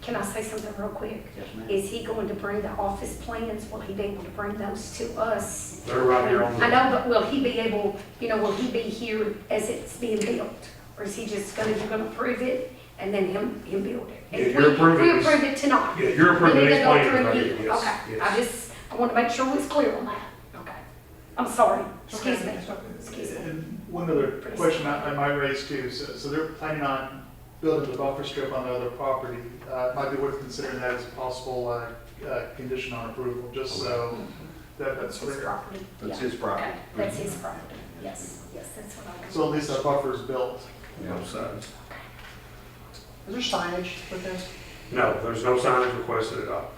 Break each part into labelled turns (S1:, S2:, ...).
S1: Can I say something real quick?
S2: Yes, ma'am.
S1: Is he going to bring the office plans? Will he be able to bring those to us?
S2: They're right here on
S1: I
S2: the,
S1: know, but will he be able, you know, will he be here as it's being built? Or is he just gonna, you're gonna approve it and then him, him build it?
S2: Yeah,
S1: If
S2: you're
S1: we-
S2: approving
S1: We
S2: this.
S1: approve it tonight.
S2: yeah, you're
S1: We
S2: approving
S1: need
S2: these
S1: to go through
S2: plans right
S1: you.
S2: here, yes,
S1: Okay, I
S2: yes.
S1: just, I want to make sure we're clear on that. Okay. I'm sorry, excuse me, excuse me.
S3: And one other question I I might raise too, so, so they're planning on building the buffer strip on the other property. Uh, it might be worth considering that as a possible, uh, uh, condition on approval, just so
S1: That's
S3: that, that's
S1: his
S3: clear.
S1: property.
S4: That's
S1: Yeah.
S4: his property.
S1: Okay, That's his property, yes, yes, that's what I was.
S3: So at least that buffer is built.
S4: Both sides.
S5: Is there signage with this?
S2: No, there's no signage requested at all.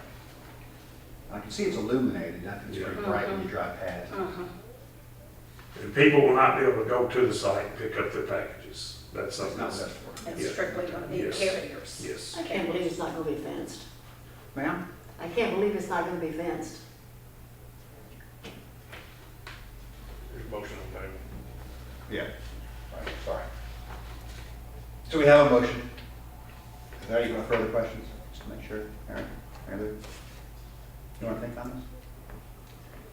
S4: I can see it's illuminated, I think it's pretty bright when you drive past.
S1: Mhm.
S2: And people will not be able to go to the site and pick up their packages. That's
S4: It's
S2: something
S4: not
S2: else.
S4: best for it.
S2: Yeah.
S1: That's strictly gonna be
S2: Yes.
S1: carriers.
S2: Yes.
S5: I
S6: can't believe it's not gonna be fenced.
S4: Ma'am?
S6: I can't believe it's not gonna be fenced.
S2: Motion on table.
S4: Yeah. Right, Sorry. So we have a motion. Is there any further questions? Just to make sure. Aaron, Mary Lou? You want to think on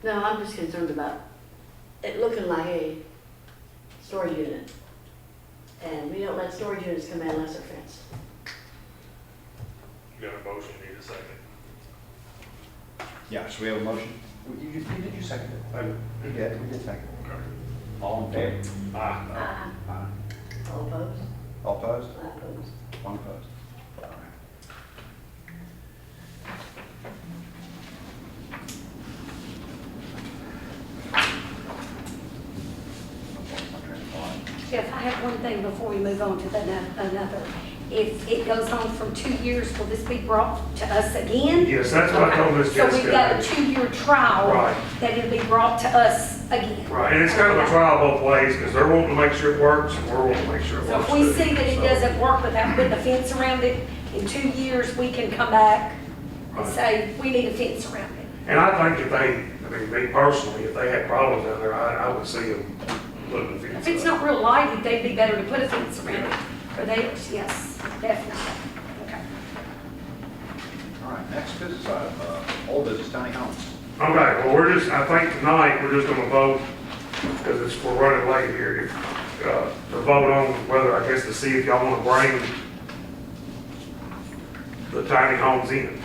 S6: No, I'm just concerned about it looking like a storage unit. And we don't let storage units come in unless they're fenced.
S7: You got a motion, you need a second.
S4: this? Yeah, so we have a motion. You, you, you- did you second it? Oh, You did, we did second it. All in favor?
S6: Aye.
S4: Aye.
S6: All opposed?
S4: All opposed?
S6: Aye opposed.
S4: One opposed. All right.
S1: Jeff, I have one thing before we move on to the ano- another. If it goes on from two years, will this be brought to us again?
S2: Yes, that's what I told Ms.
S1: Okay, So we've got a
S2: Jessica.
S1: two-year trial.
S2: Right.
S1: That it'll be brought to us again.
S2: Right, and it's kind of a trial both ways because they're wanting to make sure it works and we're wanting to make sure it
S1: So
S2: works.
S1: if we
S2: too.
S1: see that it
S2: So-
S1: doesn't work without putting a fence around it, in two years, we can come back and
S2: Right.
S1: say, we need a fence around it.
S2: And I think if they, I mean, me personally, if they had problems down there, I, I would see them putting the fence
S1: If it's
S2: up.
S1: not real lighted, they'd be better to put a fence around it for theirs, yes, definitely. Okay.
S4: All right, next business item, uh, old business, tiny homes.
S2: Okay, well, we're just, I think tonight, we're just gonna vote, because it's, we're running late here, uh, to vote on whether, I guess, to see if y'all wanna bring the tiny homes in.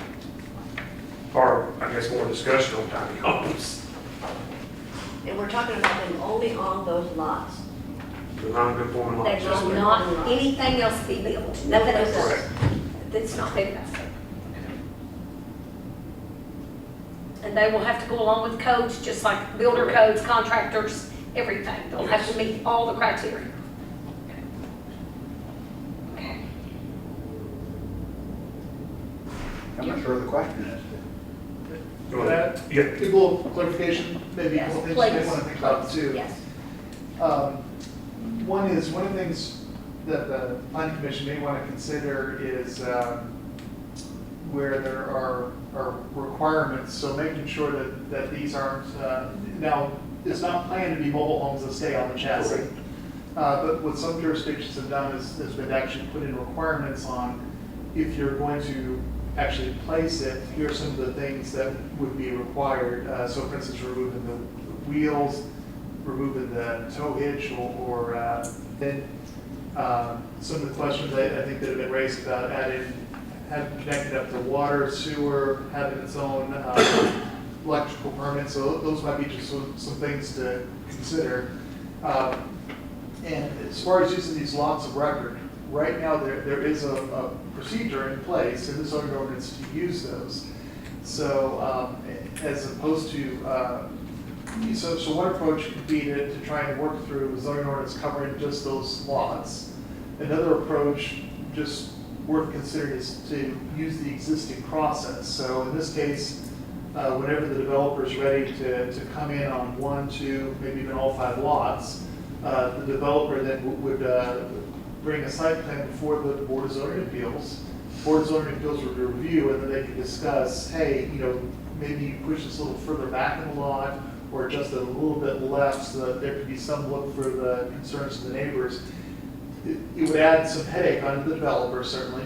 S2: Or, I guess, more discussion on tiny homes,
S6: And we're talking about them only on those lots.
S2: the non-conforming
S1: That
S2: lots.
S1: will not, anything else be built, nothing else
S2: Correct.
S1: that's not big enough. And they will have to go along with codes, just like builder codes, contractors, everything. They'll have to meet all the criteria. Okay.
S4: I'm not sure what the question is.
S2: Go ahead.
S3: A
S2: Yeah,
S3: little clarification, maybe a
S1: Yes,
S3: couple things you may
S1: please.
S3: want to think about too.
S1: Yes.
S3: Um, One is, one of the things that the planning commission may want to consider is um, where there are, are requirements, so making sure that, that these aren't, uh, now, it's not planned to be mobile homes that stay on the chassis. Uh, But what some jurisdictions have done is, is they've actually put in requirements on if you're going to actually place it, here are some of the things that would be required. Uh, So for instance, removing the wheels, removing the tow hitch or- or, uh, then um, some of the questions I I think that have been raised about adding, having connected up to water, sewer, having its own uh, electrical permit, so those might be just some, some things to consider. Uh, And as far as using these lots of record, right now, there, there is a, a procedure in place in the zoning ordinance to use those. So um, as opposed to, uh, so, so one approach could be to, to try and work through zoning ordinance covering just those lots. Another approach, just worth considering, is to use the existing process. So in this case, uh, whenever the developer's ready to, to come in on one, two, maybe even all five lots, uh, the developer then w- would uh, bring a site plan before the Board of Zoning Appeals. Board of Zoning Appeals would review, and then they could discuss, hey, you know, maybe you push this a little further back in the lot, or just a little bit left, so that there could be some look for the concerns of the neighbors. It it would add some headache onto the developer, certainly,